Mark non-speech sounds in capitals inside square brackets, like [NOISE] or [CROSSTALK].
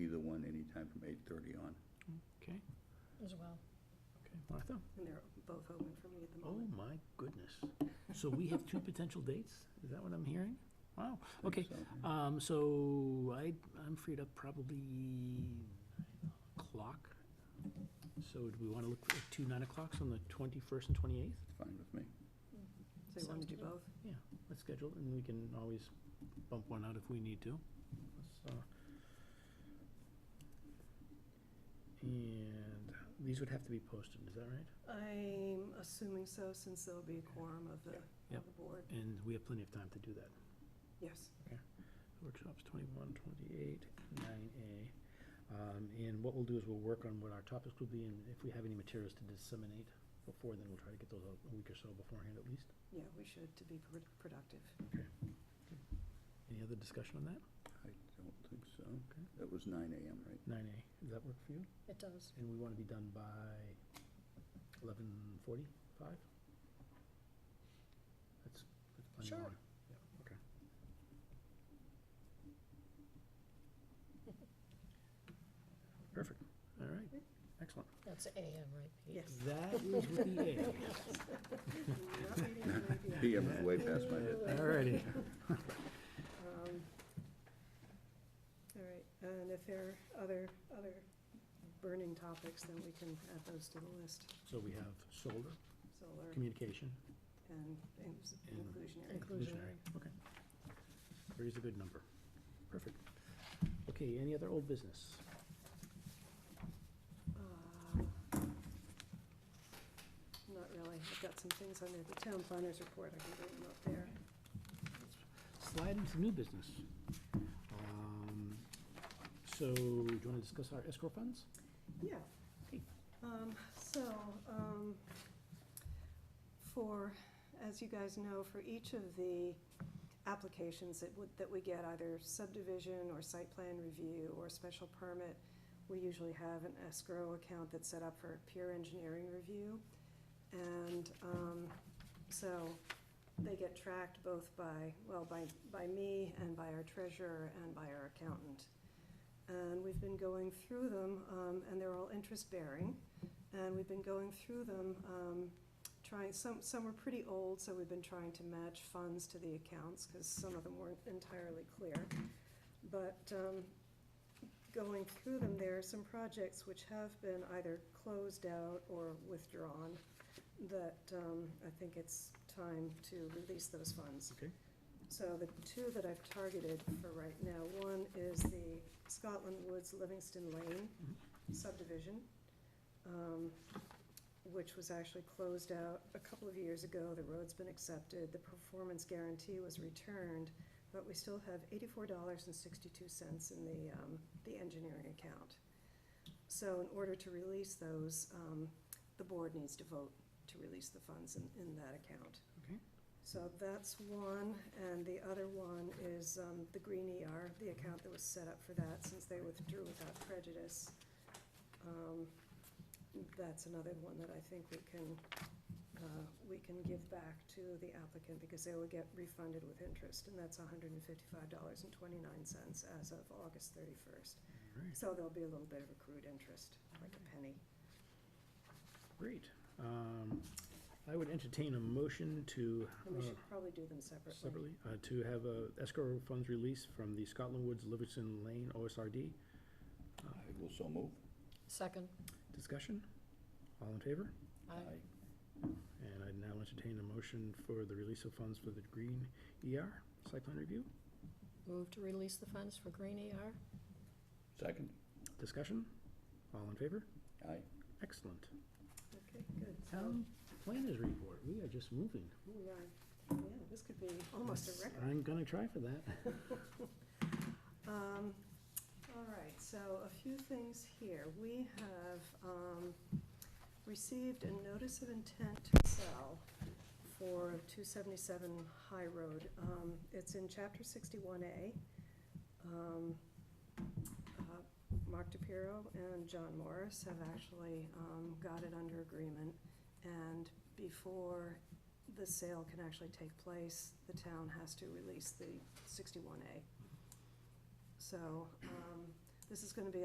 be on. Okay, as well. okay, Martha? And they're both open for me at the Oh, moment. my goodness. So we have two potential dates? Is that what I'm hearing? Wow, I think okay. so. Um, so I, I'm freed up probably nine o'clock. So do we want to look at two nine o'clocks on the twenty-first and twenty-eighth? It's fine with me. So you want Sounds to do good. both? Let's schedule it, and we can always bump one out if we need to. Let's, uh, And these would have to be posted, is that right? I'm assuming so, since there'll be a quorum of the, Yep. of the board. And we have plenty of time to do that. Yes. Workshops twenty-one, twenty-eight, nine A. Um, and what we'll do is we'll work on what our topics will be, and if we have any materials to disseminate before, then we'll try to get those out a week or so beforehand at least. Yeah, we should, to be pr- productive. Any other discussion on that? I don't think so. Okay. That was nine AM, right? Nine A, does that work for you? It does. And we want to be done by eleven forty-five? That's, that's plenty of Sure. time. Yeah, okay. Perfect, all right, excellent. That's AM, right, Pete? Yes. That is with the A. Not meeting at 9 PM. PM is way past my head. Alrighty. Um, All right, and if there are other, other burning topics, then we can add those to the list. So we have solar, Solar communication, and and s- And- inclusionary. and visionary. Okay. Three is a good number. Perfect. Okay, any other old business? Uh, Not really. I've got some things on there. The town planners report, I can bring them up there. Slide into new business. Um, So, do you want to discuss our escrow funds? Yeah. Okay. Um, so, um, for, as you guys know, for each of the applications that would, that we get, either subdivision or site plan review or special permit, we usually have an escrow account that's set up for peer engineering review. And, um, so they get tracked both by, well, by, by me and by our treasurer and by our accountant. And we've been going through them, um, and they're all interest-bearing. And we've been going through them, um, trying, some, some were pretty old, so we've been trying to match funds to the accounts, because some of them weren't entirely clear. But, um, going through them, there are some projects which have been either closed out or withdrawn, that, um, I think it's time to release those funds. Okay. So the two that I've targeted for right now, one is the Scotland Woods Livingston Lane subdivision, um, which was actually closed out a couple of years ago. The road's been accepted, the performance guarantee was returned, but we still have eighty-four dollars and sixty-two cents in the, um, the engineering account. So in order to release those, um, the board needs to vote to release the funds in, in that account. Okay. So that's one, and the other one is um, the Green ER, the account that was set up for that, since they withdrew without prejudice. Um, That's another one that I think we can, uh, we can give back to the applicant, because they will get refunded with interest, and that's hundred and fifty-five dollars and twenty-nine cents as of August thirty-first. Alright, So there'll be a little bit of accrued interest, like a penny. Great. Um, I would entertain a motion to. And we uh, should probably do them separately. separately, uh, to have uh, escrow funds released from the Scotland Woods Livingston Lane OSRD. I will so move. [LAUGHS] Second, Discussion? All in favor? aye. And I now entertain a motion for the release of funds for the Green ER site plan review. Move to release the funds for Green ER? Second. Discussion? All in favor? Aye. Excellent. Okay, good. So- Town planners report. We are just moving. Oh, yeah. Yeah, this could be almost a record. I'm gonna try for that. [LAUGHS] Um, all right, so a few things here. We have, um, received a notice of intent to sell for two seventy-seven High Road. Um, it's in chapter sixty-one A. Um, uh, Mark DePiero and John Morris have actually, um, got it under agreement. And before the sale can actually take place, the town has to release the sixty-one A. So, um, this is gonna be